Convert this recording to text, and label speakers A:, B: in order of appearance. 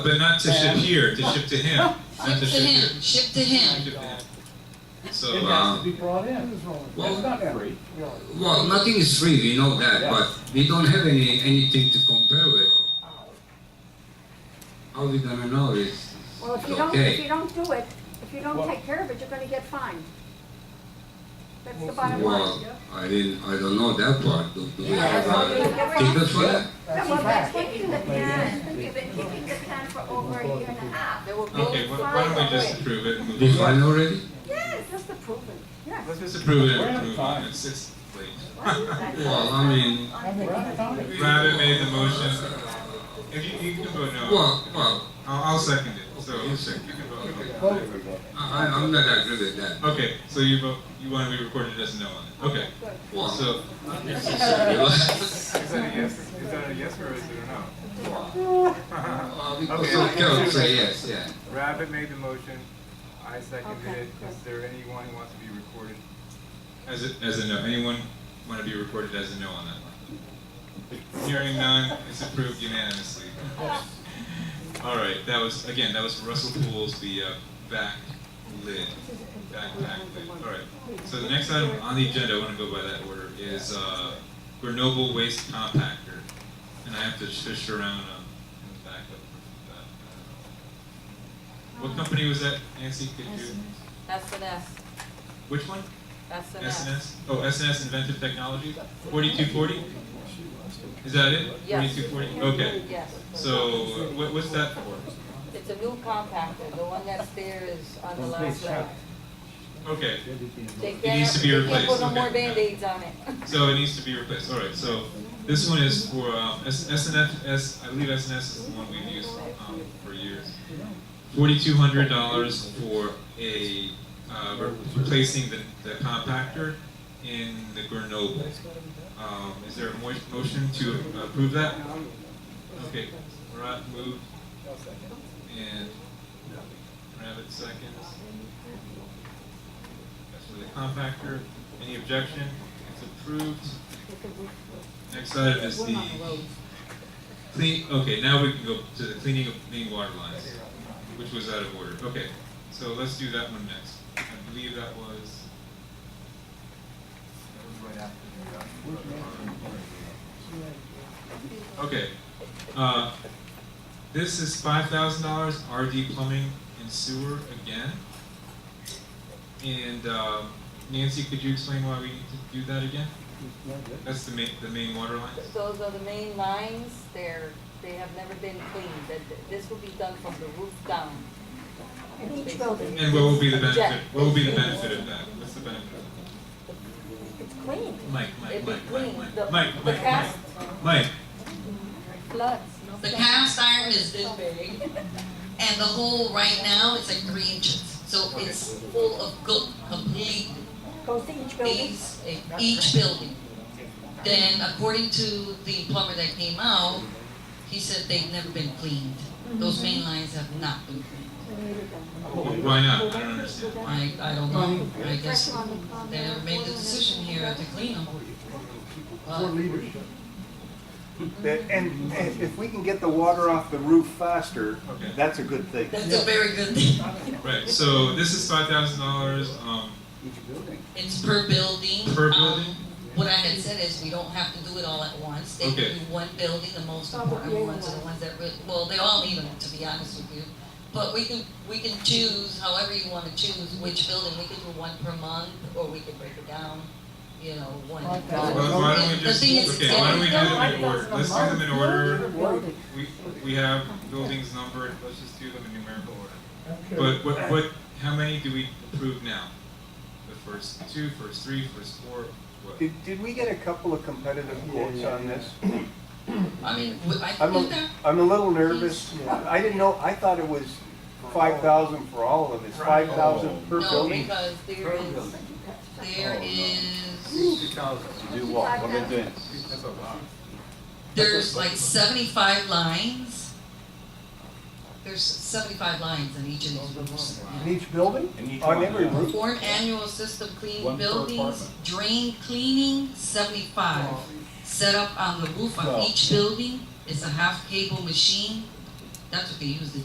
A: But not to ship here, to ship to him. Not
B: Ship
A: to
B: to
A: ship here.
B: him, ship to him.
A: Ship to him. So,
C: It
A: uh,
C: has to be brought in.
D: Well-
C: It's not free.
D: Well, nothing is free, we know that,
C: Yeah.
D: but we don't have any anything to compare with. How we gonna know it's
E: Well, if you
D: it's
E: don't, if you
D: okay?
E: don't do it, if you
C: Well-
E: don't take care of it, you're gonna get fined. That's the
C: Well, uh,
E: bottom
D: Well,
E: line.
D: I didn't, I don't know that part, do, do we have
E: You're
D: a
E: gonna get fined.
D: ticket for that?
C: That's a
E: Well,
C: fact.
E: taking the pen, you've been taking the pen for over a year and a half. There were
A: okay, why, why don't we just approve it? and move
D: They
A: on?
D: fine already?
E: Yes, that's the proof. Yes.
A: Let's just approve it
C: We're
A: and
C: out of
A: move on.
C: time.
A: It's, it's late.
D: Well, I mean,
C: I mean, I thought it-
A: Rabbit made the motion. If you, you can vote no.
D: well, well,
A: I'll, I'll second it. So you can vote
C: Well,
D: I, I- I'm not agree with that.
A: no. Okay, so you vote, you want to be recorded as no on it. Okay,
E: Good.
D: Well,
A: so.
D: well,
A: Is that a yes, is that a yes or is it a
D: because I cannot say yes, yeah.
F: Rabbit made the motion, I seconded
E: Okay,
F: it.
E: cool.
F: Is there anyone who wants to be recorded?
A: As a, as a no. Anyone want to be recorded as a no on that one? Hearing none, it's approved unanimously. All right, that was, again, that was Russell Poole's, the uh, back lid. Back, back lid. All right. So the next item on the agenda, I want to go by that order, is uh, Grenoble Waste Compactor. And I have to fish around um, in the back of that. What company was that, Nancy? Could you,
B: That's an S,
A: which one?
B: that's an S.
A: SNS, oh, SNS Inventive Technology, forty-two forty? Is that it?
B: Yes.
A: Forty-two forty, okay.
B: Yes,
A: So what, what's that for?
B: it's a new compactor, the one that's there is on the last level.
A: Okay,
B: They
A: It needs
B: can't-
A: to be
B: they can't
A: replaced,
B: Put no more
A: okay.
B: Band-Aids on it.
A: so it needs to be replaced, all right, so this one is for, um, S- SNF, S, I believe SNS is the one we've used, um, for years. Forty-two hundred dollars for a, uh, re- replacing the, the compactor in the Grenoble. Um, is there a mo- motion to approve that? Okay, Marat moved. And Rabbit seconds. That's for the compactor. Any objection? It's approved. Next item is the clean, okay, now we can go to the cleaning of main water lines, which was out of order. Okay, so let's do that one next. I believe that was,
F: That was right after the, uh,
A: okay. Uh, This is five thousand dollars, RD Plumbing and Sewer again. And um, Nancy, could you explain why we need to do that again? That's the main, the main water lines?
B: Those are the main lines, they're, they have never been cleaned, that, this will be done from the roof down.
E: In each building,
A: And what will be the benefit,
B: Yeah.
A: what will be the benefit of that? What's the benefit of
B: It's clean,
A: that? Mike, Mike,
B: it'd be
A: Mike, Mike,
B: clean,
A: Mike,
B: the,
A: Mike,
B: the
A: Mike, Mike,
B: cast
A: Mike.
B: floods.
G: The cast iron is this big, and the hole right now is like three inches. So it's full of gook, complete
E: goes to each building.
G: base in each building. Then according to the plumber that came out, he said they've never been cleaned.
E: Mm-hmm.
G: Those main lines have not been cleaned.
A: Why not? I don't understand. Why?
G: I, I don't know, I guess
E: Pressure on the- on
G: they
E: the
G: never made the
E: ordinance.
G: decision here to clean them.
C: Poor
G: But
C: leadership.
H: That- And, and if we can get the water off the roof faster,
A: Okay.
H: that's a good thing.
G: that's a very good thing.
A: Right, so this is five thousand dollars, um,
H: Each building.
G: It's per building.
A: Per
G: Um,
A: building?
G: What I had said is we don't have to do it all at once. They
A: Okay.
G: can do one building, the most
E: Oh,
G: important
E: yeah.
G: ones are the ones that really, well, they all need them, to be honest with you. But we can, we can choose however you wanna choose which building. We can do one per month, or we can break it down, you know, one.
C: Like that.
A: why why don't we
G: The
A: just,
G: thing is,
A: okay, why don't we do
G: yeah,
A: them in order? Let's do them in order.
C: Well,
A: We, we have buildings numbered, let's just do them in numerical order.
C: okay.
A: But what, what, how many do we approve now? The first two, first three, first four, what?
H: Did, did we get a couple of competitive quotes on this?
G: I mean, w- I
H: I'm
G: think
H: a,
G: that,
H: I'm a little nervous. I didn't know, I thought it was five thousand for all of them. It's five thousand per
G: Oh. no,
H: building.
G: because there is, there
H: Oh,
G: is
E: Do what? What do?
F: That's a lot.
G: There's like seventy-five lines. There's seventy-five lines in each of these rooms.
H: In each building? On every roof?
G: Form annual system clean buildings, drain cleaning, seventy-five. Set up on the roof of each building, it's a half cable machine. that's what they usually